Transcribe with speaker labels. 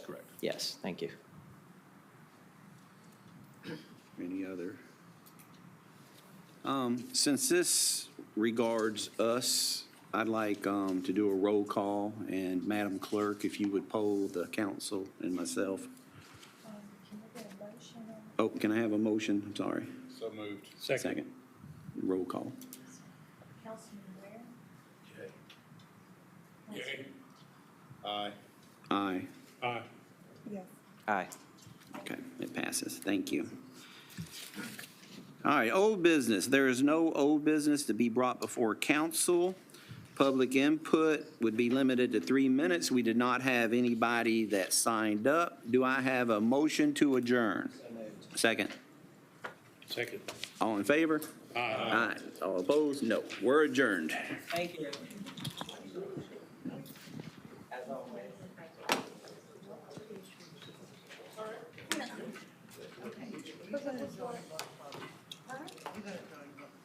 Speaker 1: Yes, thank you.
Speaker 2: Any other? Um, Since this regards us, I'd like um, to do a roll call, and Madam Clerk, if you would poll the council and myself. Oh, can I have a motion? I'm sorry.
Speaker 3: So moved.
Speaker 2: Second. Roll call.
Speaker 4: Councilman Ware?
Speaker 3: Aye.
Speaker 2: Aye.
Speaker 3: Aye.
Speaker 4: Yes.
Speaker 1: Aye.
Speaker 2: Okay, it passes. Thank you. All right, old business. There is no old business to be brought before council. Public input would be limited to three minutes. We did not have anybody that signed up. Do I have a motion to adjourn? Second.
Speaker 3: Second.
Speaker 2: All in favor? Aye. All opposed? No. We're adjourned.
Speaker 5: Thank you. As always.